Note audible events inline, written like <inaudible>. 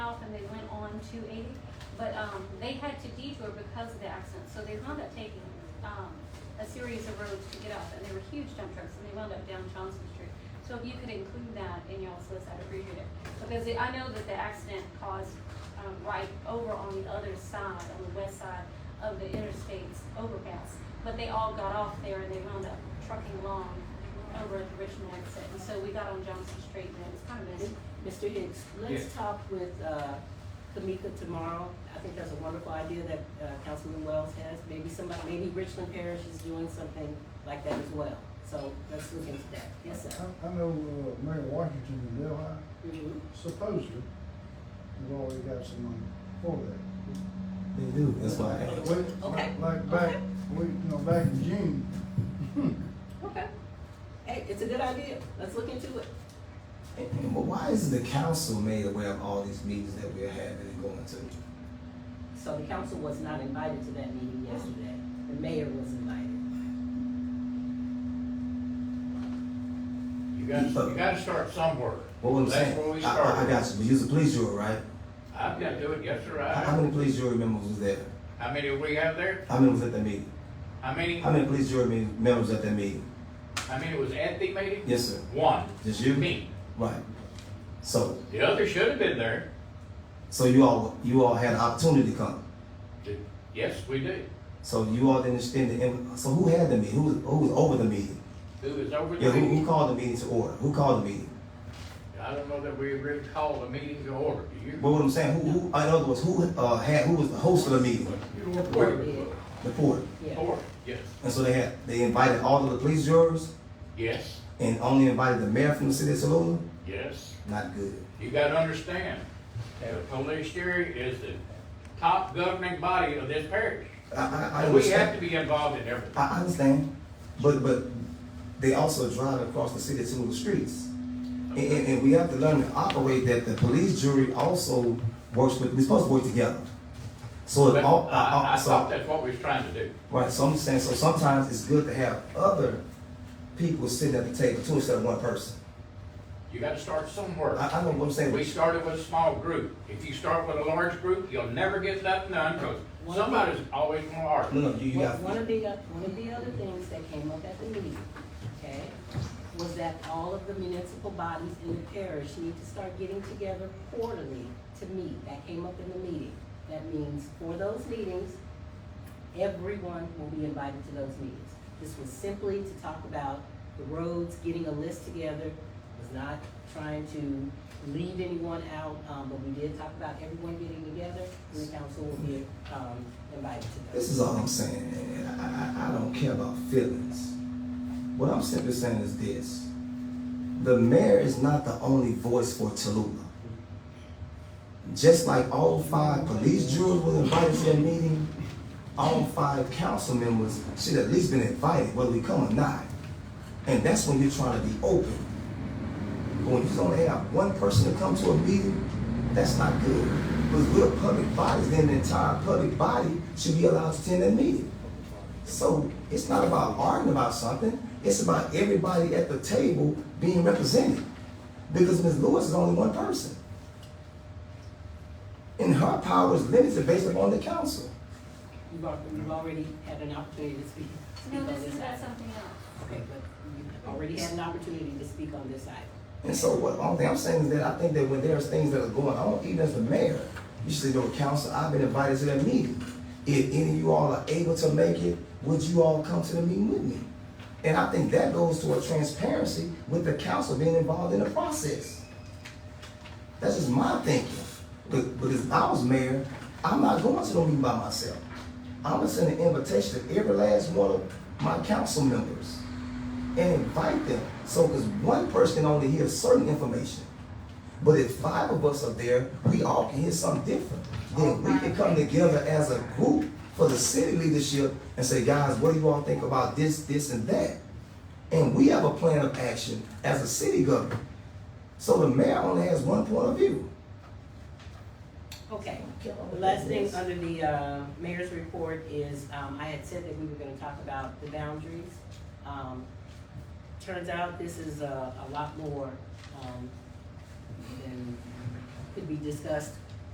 um, they had to detour because of the accident, so they wound up taking, um, a series of roads to get up, and they were huge dump trucks, and they wound up down Johnson Street. So if you could include that in y'all's list, I'd appreciate it, because it- I know that the accident caused, um, right over on the other side, on the west side of the interstate's overpass, but they all got off there and they wound up trucking along over at the Richmond exit, and so we got on Johnson Street, and it was kind of messy. Mr. Hicks, let's Yes. talk with, uh, Kamika tomorrow. I think that's a wonderful idea that, uh, Councilman Wells has. Maybe somebody, maybe Richland Parish is doing something like that as well. So let's look into that. Yes, sir. I, I know, uh, Mayor Washington in Delhi Mhm. supposedly, has already got some money for that. They do, that's why. I asked. We- Okay. Like, like back, we, you know, back in June, <laughs> hmm, Okay. Hey, it's a good idea. Let's look into it. And- But why is the council made aware of all these meetings that we're having and going to? So the council was not invited to that meeting yesterday. The mayor was invited. You gotta, you gotta start somewhere. What I'm saying? That's where we I- I, I started. got you, but you're a police jury, right? I've gotta do it, yes, sir, How how I, many police jury members was there? how many do we have there? How many was at that meeting? How many, How many police jury me- members at that meeting? how many was at the meeting? Yes, sir. One, Just you? me. Right. So, The other should have been there. so you all, you all had an opportunity to come. The- Yes, we do. So you all didn't extend the, inv- so who had the meeting? Who, was- who was over the meeting? Who was over Yeah, the who, who meeting? called the meeting to order? Who called the meeting? I don't know that we really called the meeting to order, do you? But what I'm saying, who, who, in other words, who, uh, had, who was the host of the meeting? You were part of it. The port. Yeah. Order, yes, And so they had, they invited all of the police jurors yes, and only invited the mayor from the city of Tallulah? yes. Not good. You gotta understand, the police jury is the top governing body of this parish. I, I, I We have to understand. be involved in everything. I I understand, but, but they also drive across the city to the streets. And, and, and we have to learn to operate that the police jury also works with, we're supposed to work together. So But it all, uh, I, I so- thought that's what we was trying to do. Right, so I'm saying, so sometimes it's good to have other people sitting at the table too instead of one person. You gotta start somewhere. I, I know what I'm saying, We but started with a small group. If you start with a large group, you'll never get nothing done, because somebody's always gonna argue. no, no, you, you got, One of the, one of the other things that came up at the meeting, okay, was that all of the municipal bodies in the parish need to start getting together quarterly to meet. That came up in the meeting. That means for those meetings, everyone will be invited to those meetings. This was simply to talk about the roads, getting a list together, was not trying to leave anyone out, um, but we did talk about everyone getting together, and the council will be, um, invited to this those. is all I'm saying, and I, I, I don't care about feelings. What I'm simply saying is this, the mayor is not the only voice for Tallulah. Just like all five police jurors were invited to that meeting, all five council members should at least been invited, whether we come or not. And that's when you're trying to be open. But when you only have one person to come to a meeting, that's not good. Because we're public bodies, then the entire public body should be allowed to attend that meeting. So it's not about arguing about something, it's about everybody at the table being represented. Because Ms. Lewis is only one person. And her power is limited based upon the council. You've al- you've already had an opportunity to speak. speak No, on this is about item. something else. Okay, but you've already had an opportunity to speak on this item. And so what, only thing I'm saying is that I think that when there's things that are going on, even as the mayor, you should say, no, council, I've been invited to that meeting. If any of you all are able to make it, would you all come to the meeting with me? And I think that goes to a transparency with the council being involved in the process. That's just my thinking. But, but if I was mayor, I'm not going to the meeting by myself. I'm gonna send an invitation to every last one of my council members and invite them. So, because one person can only hear certain information. But if five of us are there, we all can hear something different. Then we can come together as a group for the city leadership and say, guys, what do you all think about this, this, and that? And we have a plan of action as a city government. So the mayor only has one point of view. Okay, the last thing under the, uh, mayor's report is, um, I had said that we were gonna talk about the boundaries. Um, turns out this is a, a lot more, um, than could be discussed